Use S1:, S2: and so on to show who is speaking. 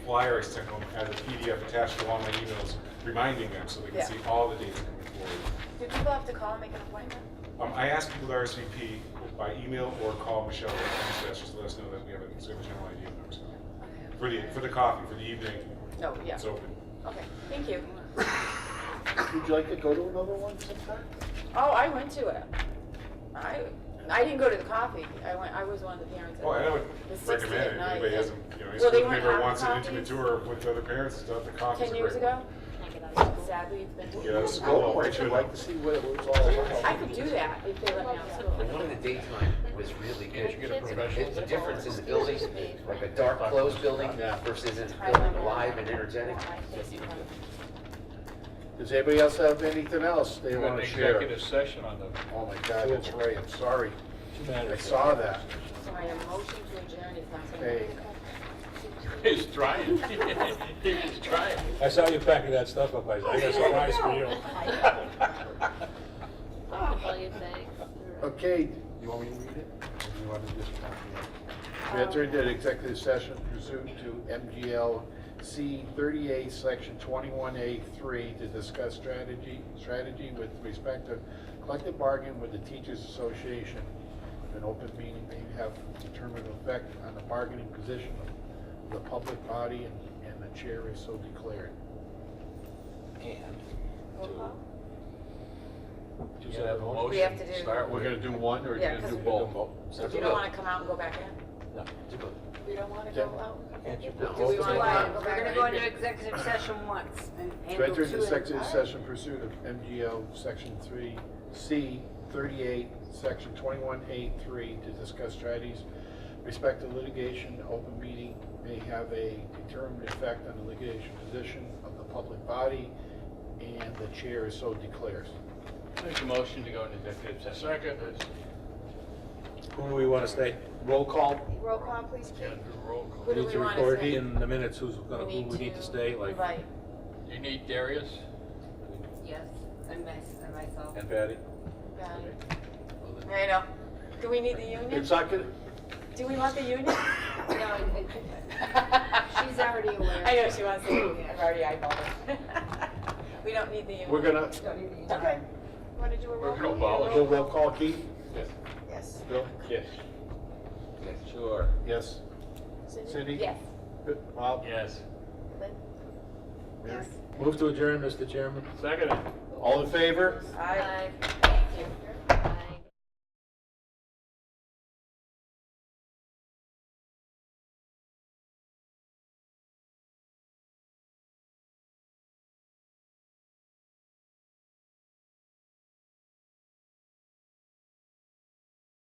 S1: flyer I sent home as a PDF attached to all my emails, reminding them so they can
S2: Yeah.
S1: see all the dates coming forward.
S3: Do people have to call and make an appointment?
S1: Um, I asked people to RSVP by email or call Michelle at NSS, just to let us know that we have a we have a general idea of what's coming. For the, for the coffee, for the evening,
S2: No, yeah,
S1: it's open.
S2: okay, thank you.
S4: Would you like to go to another one sometime?
S2: Oh, I went to it. I, I didn't go to the coffee, I went, I was one of the parents. that
S1: Oh, and I would
S2: went. The 60
S1: recommend
S2: at
S1: it, if
S2: night,
S1: anybody
S2: yeah.
S1: hasn't, you know, any
S2: Well, they
S1: school
S2: weren't
S1: member
S2: out
S1: wants an
S2: copies
S1: intimate tour with other parents and stuff, the coffee's
S2: Ten
S1: a
S2: years
S1: great
S2: ago,
S1: one.
S2: sadly, it's been.
S1: Yeah, that's
S4: Go
S1: cool.
S4: for it, I'd like to see what it was all about.
S2: I could do that if they let me out of
S5: The
S2: school.
S5: one in the daytime was really good. It- The difference is buildings, like a dark closed building versus a building alive and energetic.
S4: Does anybody else have anything else they
S6: We're in
S4: want to share?
S6: executive session on the
S4: Oh my God, that's right, I'm sorry. I saw that.
S2: So my motion to adjourn is not gonna.
S4: Hey,
S6: He's trying. He's trying.
S7: I saw you packing that stuff up, I I got a surprise for you.
S8: I can tell you things.
S4: okay,
S1: You want me to read it? Or you want to just copy it?
S4: we entered an executive session pursuant to MGL C thirty-eight, section twenty-one A three to discuss strategy, strategy with respect to collective bargaining with the teachers association. An open meeting may have determined effect on the bargaining position of the public body and, and the chair is so declared.
S6: Just have a
S2: We have
S6: motion,
S2: to do-
S6: start
S4: We're
S6: with it.
S4: gonna do one or
S2: Yeah,
S4: you're gonna do
S2: 'cause-
S4: both?
S2: You don't wanna come out and go back in?
S5: No, do both.
S2: We don't wanna
S4: go
S2: out?
S5: Can't you
S2: Do we
S5: both?
S2: wanna go out and go back
S9: We're gonna
S2: in?
S9: go into executive session once and
S4: To
S9: handle
S4: enter
S9: two
S4: into
S9: at a
S4: executive
S9: time.
S4: session pursuit of MGL Section 3, C 38, Section 21A3 to discuss strategies respect to litigation, open meeting may have a determined effect on the litigation position of the public body, and the chair so declares.
S6: Make a motion to go into executive session. Second.
S7: Who do we want to say? Roll call?
S3: Roll call, please,
S6: Yeah,
S3: Kate.
S6: do roll call.
S2: Who do
S7: Need
S2: we
S7: to
S2: wanna
S7: record
S2: say?
S7: In the minutes, who's gonna, who we need to stay, like,
S2: Right,
S6: You need Darius?
S9: Yes, and mys- and myself.
S7: and Patty?
S2: got it. I know. Do we need the union?
S4: It's not gonna,
S2: Do we want the union?
S9: No, I- I- she's already aware.
S2: I know she wants the union, I've already eyeballed it. We don't need the union.
S4: we're gonna,
S2: Okay.
S3: Want to do a roll call?
S6: We're gonna abolish.
S4: we'll roll call Keith?
S3: Yes.
S4: Bill?
S6: Yes.
S5: Sure.
S4: Yes. Cindy?
S2: Yes.
S4: Bob?
S6: Yes.
S3: Lynn?
S4: Mary?
S7: Move to adjourn, Mr. Chairman.
S6: Second.
S4: All in favor?
S2: Aye.